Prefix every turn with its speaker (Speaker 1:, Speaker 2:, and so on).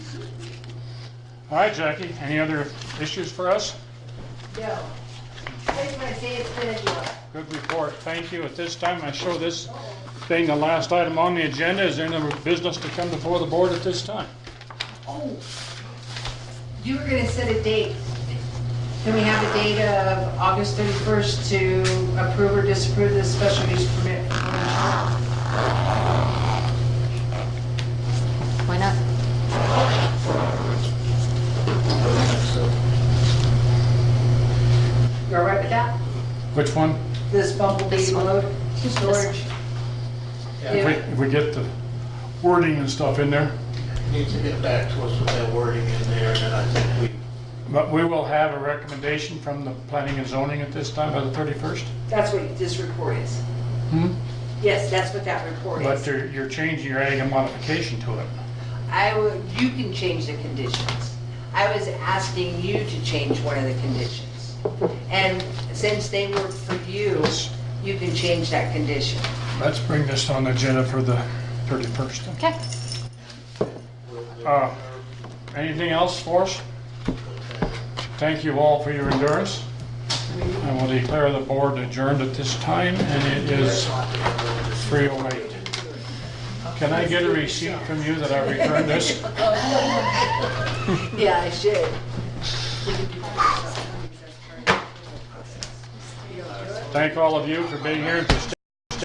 Speaker 1: All right, Jackie, any other issues for us?
Speaker 2: No. Here's my dad's video.
Speaker 1: Good report, thank you. At this time, I show this being the last item on the agenda. Is there any business to come before the board at this time?
Speaker 2: Oh. You were gonna set a date. Can we have a date of August 31st to approve or disapprove the special use permit?
Speaker 3: Why not?
Speaker 2: You all right with that?
Speaker 1: Which one?
Speaker 2: This bumblebee
Speaker 3: This one.
Speaker 2: load storage?
Speaker 1: If we,
Speaker 2: Yeah.
Speaker 1: if we get the wording and stuff in there.
Speaker 4: Needs to get back to us with that wording in there, and then I think
Speaker 1: But we will have a recommendation from the planning and zoning at this time by the 31st?
Speaker 2: That's what this report is.
Speaker 1: Hmm?
Speaker 2: Yes, that's what that report
Speaker 1: But
Speaker 2: is.
Speaker 1: you're, you're changing, you're adding a modification to it.
Speaker 2: I will, you can change the conditions. I was asking you to change one of the conditions. And since they were for you, you can change that condition.
Speaker 1: Let's bring this on the agenda for the 31st.
Speaker 3: Okay.
Speaker 1: Uh, Anything else for us? Thank you all for your endurance. I will declare the board adjourned at this time, and it is 3:08. Can I get a receipt from you that I returned this?
Speaker 2: Yeah, I should.
Speaker 1: Thank all of you for being here and for staying.